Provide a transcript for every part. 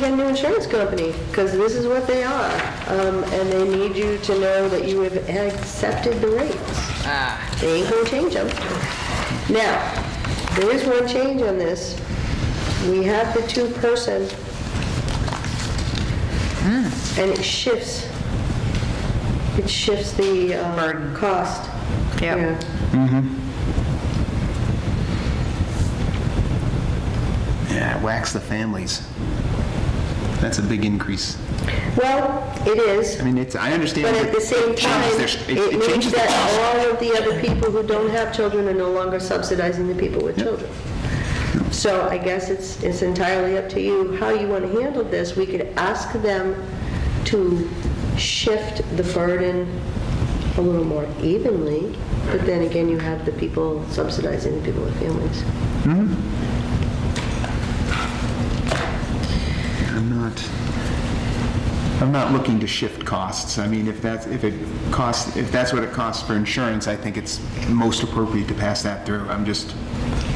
get a new insurance company, because this is what they are. Um, and they need you to know that you have accepted the rates. Ah, They ain't gonna change them. Now, there is one change on this. We have the two-person, Hmm. and it shifts, it shifts the um, Burden. cost. Yep. Yeah. Yeah, wax the families. That's a big increase. Well, it is. I mean, it's, I understand. But that at the same it time, changes their- it means changes their that cost. all of the other people who don't have children are no longer subsidizing the people with children. So I guess it's, it's entirely up to you how you want to handle this. We could ask them to shift the burden a little more evenly, but then again, you have the people subsidizing the people with families. I'm not, I'm not looking to shift costs. I mean, if that's, if it costs, if that's what it costs for insurance, I think it's most appropriate to pass that through. I'm just,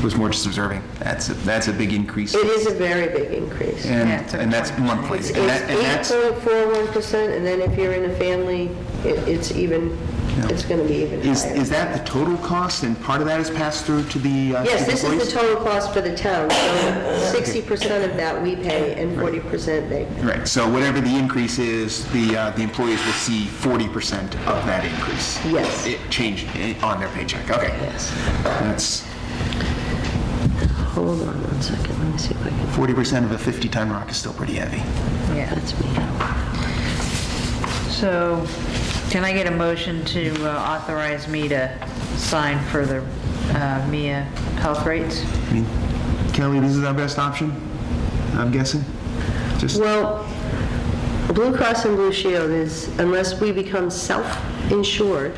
was more just observing. That's, a- that's a big increase. It is a very big increase. And, Yeah, it's a and that's twenty. monthly. It's And that- and eight that's, point four one percent, and then if you're in a family, it- it's even, it's gonna be even is, higher. is that the total cost and part of that is passed through to the uh, to Yes, the this is employees? the total cost for the town, so sixty percent of that we pay and forty percent they. Right, so whatever the increase is, the, uh, the employees will see 40% of that increase. Yes. It changed eh, on their paycheck, okay. Yes. That's Hold on one second, let me see if I can, 40% of a 50-ton rock is still pretty heavy. yeah. me. So can I get a motion to uh, authorize me to sign for the uh, MIA health rates? I mean, Kelly, this is our best option, I'm guessing? Just, Well, Blue Cross and Blue Shield is, unless we become self-insured,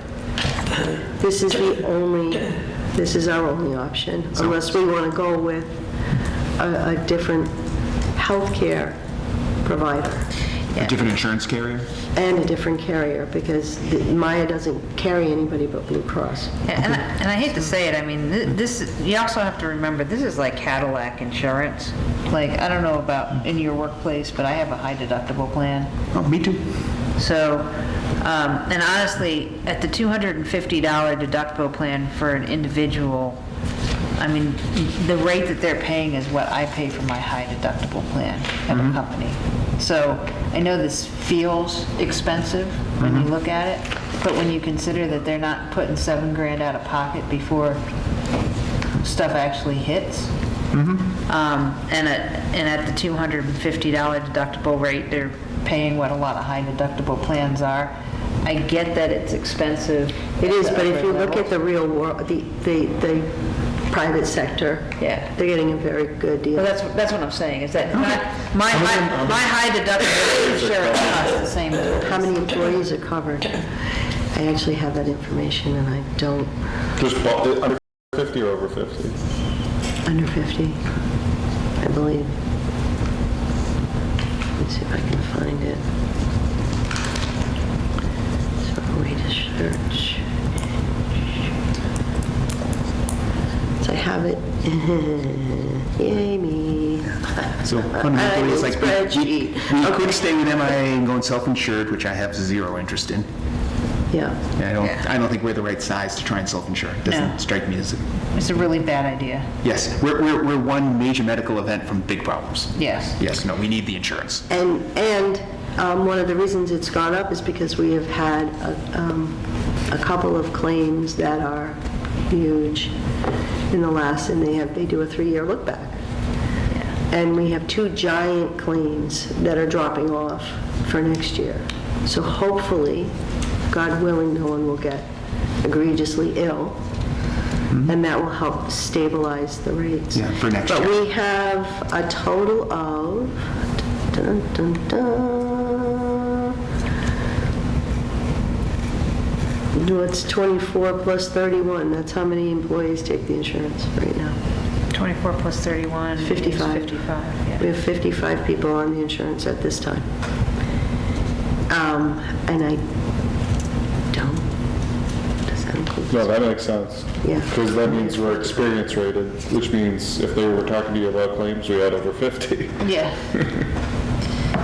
this is the only, this is our only option, unless we want to go with a, a different healthcare provider. a different insurance carrier? And a different carrier, because the- Maya doesn't carry anybody but Blue Cross. And and I and I hate to say it, I mean, thi- this, you also have to remember, this is like Cadillac insurance. Like, I don't know about in your workplace, but I have a high deductible plan. Oh, me too. So, um, and honestly, at the $250 deductible plan for an individual, I mean, the rate that they're paying is what I pay for my high deductible plan at a company. So I know this feels expensive when you look at it, but when you consider that they're not putting seven grand out of pocket before stuff actually hits. Mm-hmm. Um, And at, and at the $250 deductible rate, they're paying what a lot of high deductible plans are. I get that it's expensive. It is, but if you look at the the real world, the, the, the private sector. Yeah. They're getting a very good Well, deal. that's, that's what I'm saying, is that my, my, my- my high deductible insurance costs the same. How many employees are covered? I actually have that information, and I don't, Just bought it under 50 or over 50? under 50, I believe. Let's see if I can find it. So we just search. So I have it. Yay, me. So I fundamentally, need it's like, we- we spreadsheet. we could stay with MIA and going self-insured, which I have zero interest in. Yeah. I don't, Yeah. I don't think we're the right size to try and self-insure. It No. doesn't strike me as, a- It's a really bad idea, yes, we're, we're, we're one major medical event from big problems. yes. Yes, no, we need the insurance. And, and um, one of the reasons it's gone up is because we have had a um, a couple of claims that are huge in the last, and they have, they do a three-year look-back. And we have two giant claims that are dropping off for next year. So hopefully, God willing, no one will get egregiously ill, and that will help stabilize the rates. Mm-hmm. Yeah, for next But year. we have a total of, dun, dun, dun. No, it's 24 plus 31, that's how many employees take the insurance right now. 24 plus 31 is 55. We 55, yeah. have 55 people on the insurance at this time. Um, And I don't, does that include? No, that makes sense. Yeah. Because that means we're experience rated, which means if they were talking to you about claims, we had over 50. Yeah,